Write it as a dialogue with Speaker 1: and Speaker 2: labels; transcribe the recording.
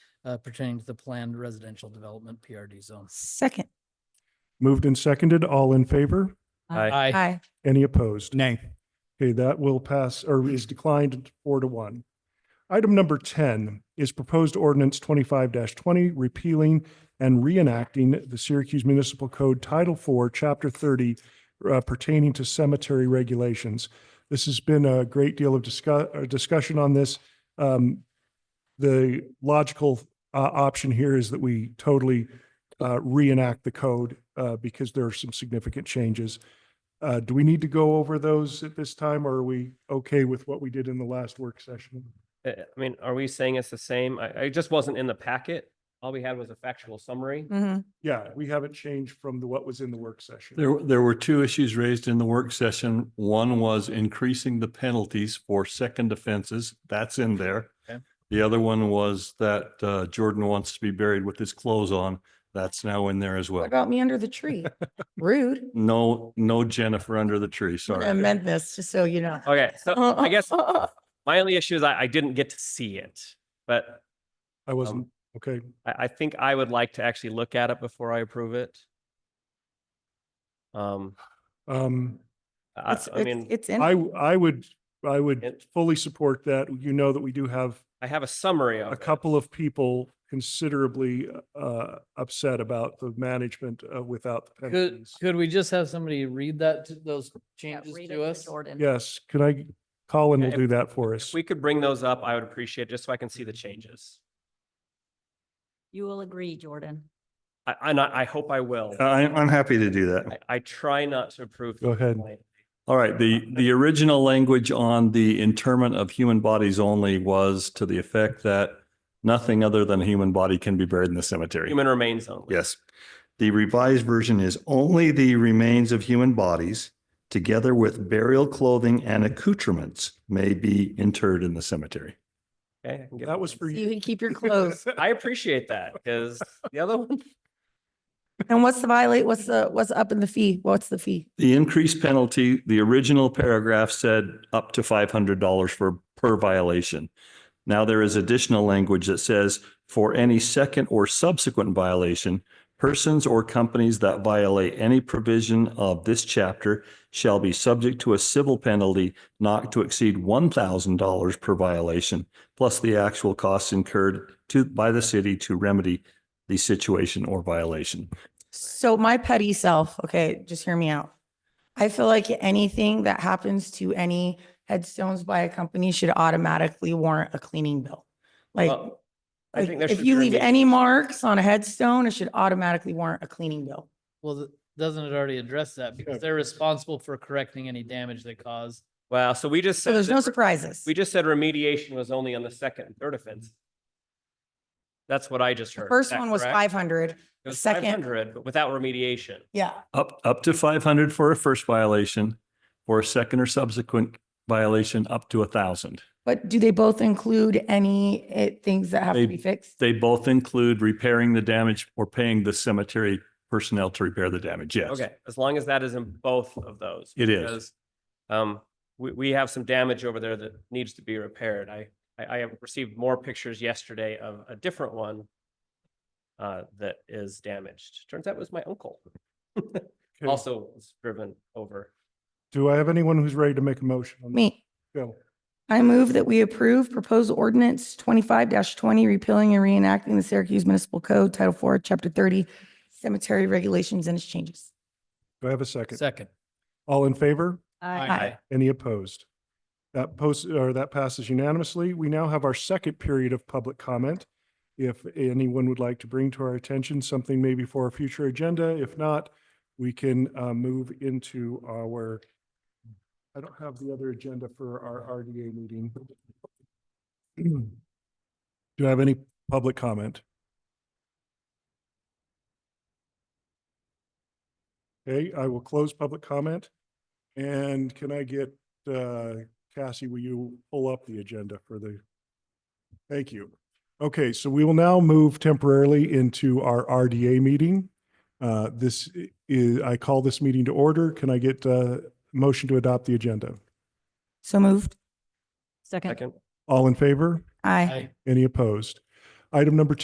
Speaker 1: uh, pertaining to the planned residential development PRD zone.
Speaker 2: Second.
Speaker 3: Moved and seconded. All in favor?
Speaker 2: Aye. Aye.
Speaker 3: Any opposed?
Speaker 4: Nay.
Speaker 3: Okay, that will pass or is declined four to one. Item number ten is proposed ordinance twenty-five twenty, repealing and reenacting the Syracuse Municipal Code Title Four, Chapter thirty uh, pertaining to cemetery regulations. This has been a great deal of discuss, uh, discussion on this. Um, the logical uh, option here is that we totally uh, reenact the code uh, because there are some significant changes. Uh, do we need to go over those at this time or are we okay with what we did in the last work session?
Speaker 5: Uh, I mean, are we saying it's the same? I, I just wasn't in the packet. All we had was a factual summary.
Speaker 2: Mhm.
Speaker 3: Yeah, we haven't changed from the, what was in the work session.
Speaker 6: There, there were two issues raised in the work session. One was increasing the penalties for second offenses. That's in there.
Speaker 1: Okay.
Speaker 6: The other one was that uh, Jordan wants to be buried with his clothes on. That's now in there as well.
Speaker 2: What about me under the tree? Rude.
Speaker 6: No, no Jennifer under the tree, sorry.
Speaker 2: Amend this, just so you know. Uh,
Speaker 5: Okay, so
Speaker 2: Oh,
Speaker 5: I guess my only issue is I, I didn't get to see it, but
Speaker 3: I wasn't,
Speaker 5: Um,
Speaker 3: okay.
Speaker 5: I, I think I would like to actually look at it before I approve it. Um,
Speaker 3: Um,
Speaker 5: I,
Speaker 2: It's,
Speaker 5: I
Speaker 2: it's-
Speaker 5: mean,
Speaker 2: it's in,
Speaker 3: I, I would, I would
Speaker 5: It-
Speaker 3: fully support that. You know that we do have
Speaker 5: I have a summary of
Speaker 3: a
Speaker 5: it.
Speaker 3: couple of people considerably uh, upset about the management uh, without the
Speaker 1: Could,
Speaker 3: penalties.
Speaker 1: could we just have somebody read that, to- those changes to us?
Speaker 3: Yes, can I, Colin will
Speaker 5: If-
Speaker 3: do that for
Speaker 5: If
Speaker 3: us.
Speaker 5: we could bring those up, I would appreciate it, just so I can see the changes.
Speaker 7: You will agree, Jordan.
Speaker 5: I, I not, I hope I will.
Speaker 6: I'm, I'm happy to do that.
Speaker 5: I, I try not to approve.
Speaker 3: Uh, Go ahead.
Speaker 5: things like-
Speaker 6: All right, the, the original language on the interment of human bodies only was to the effect that nothing other than a human body can be buried in the cemetery.
Speaker 5: Human remains only.
Speaker 6: Yes. The revised version is only the remains of human bodies, together with burial clothing and accoutrements, may be interred in the cemetery.
Speaker 5: Okay. I can get
Speaker 3: That
Speaker 5: with
Speaker 3: was
Speaker 5: it.
Speaker 3: for
Speaker 2: you
Speaker 3: you.
Speaker 2: can keep your clothes.
Speaker 5: I appreciate that because the other one,
Speaker 2: And what's the violate, what's the, what's up in the fee? What's the fee?
Speaker 6: The increased penalty, the original paragraph said up to five hundred dollars for per violation. Now there is additional language that says for any second or subsequent violation, persons or companies that violate any provision of this chapter shall be subject to a civil penalty not to exceed one thousand dollars per violation, plus the actual costs incurred to, by the city to remedy the situation or violation.
Speaker 2: So my petty self, okay, just hear me out. I feel like anything that happens to any headstones by a company should automatically warrant a cleaning bill. Like,
Speaker 5: Well, I
Speaker 2: like
Speaker 5: think there
Speaker 2: if
Speaker 5: should
Speaker 2: you
Speaker 5: be
Speaker 2: leave
Speaker 5: remedial.
Speaker 2: any marks on a headstone, it should automatically warrant a cleaning bill.
Speaker 1: Well, th- doesn't it already address that? Because they're responsible for correcting any damage they cause.
Speaker 5: wow, so we just.
Speaker 2: So
Speaker 5: said
Speaker 2: there's
Speaker 5: that
Speaker 2: no
Speaker 5: re-
Speaker 2: surprises.
Speaker 5: We just said remediation was only on the second and third offense. That's what I just
Speaker 2: The
Speaker 5: heard. Is
Speaker 2: first
Speaker 5: that
Speaker 2: one was
Speaker 5: correct?
Speaker 2: five hundred.
Speaker 5: It was
Speaker 2: second-
Speaker 5: 500, but without remediation.
Speaker 2: Yeah.
Speaker 6: Up, up to five hundred for a first violation, for a second or subsequent violation, up to a thousand.
Speaker 2: But do they both include any eh, things that have
Speaker 6: They-
Speaker 2: to be fixed?
Speaker 6: They both include repairing the damage or paying the cemetery personnel to repair the damage, yes.
Speaker 5: Okay, as long as that is in both of those.
Speaker 6: It is.
Speaker 5: because, Um, we, we have some damage over there that needs to be repaired. I, I, I have received more pictures yesterday of a different one uh, that is damaged. Turns out it was my uncle.
Speaker 3: Okay.
Speaker 5: Also was driven over.
Speaker 3: Do I have anyone who's ready to make a motion? on that?
Speaker 2: Me,
Speaker 3: Go.
Speaker 2: I move that we approve proposed ordinance twenty-five twenty, repealing and reenacting the Syracuse Municipal Code, Title Four, Chapter thirty, cemetery regulations and its changes.
Speaker 3: Do I have a second?
Speaker 1: Second.
Speaker 3: All in favor?
Speaker 2: Aye.
Speaker 3: Any opposed? That post, or that passes unanimously. We now have our second period of public comment. If anyone would like to bring to our attention something maybe for a future agenda, if not, we can uh, move into our, I don't have the other agenda for our RDA meeting. Do I have any public comment? Okay, I will close public comment. And can I get, uh, Cassie, will you pull up the agenda for the? Thank you. Okay, so we will now move temporarily into our RDA meeting. Uh, this i- is, I call this meeting to order. Can I get, uh, motion to adopt the agenda?
Speaker 2: So moved.
Speaker 7: Second.
Speaker 5: Second.
Speaker 3: All in favor?
Speaker 2: Aye.
Speaker 1: Aye.
Speaker 3: Any opposed? Item number two.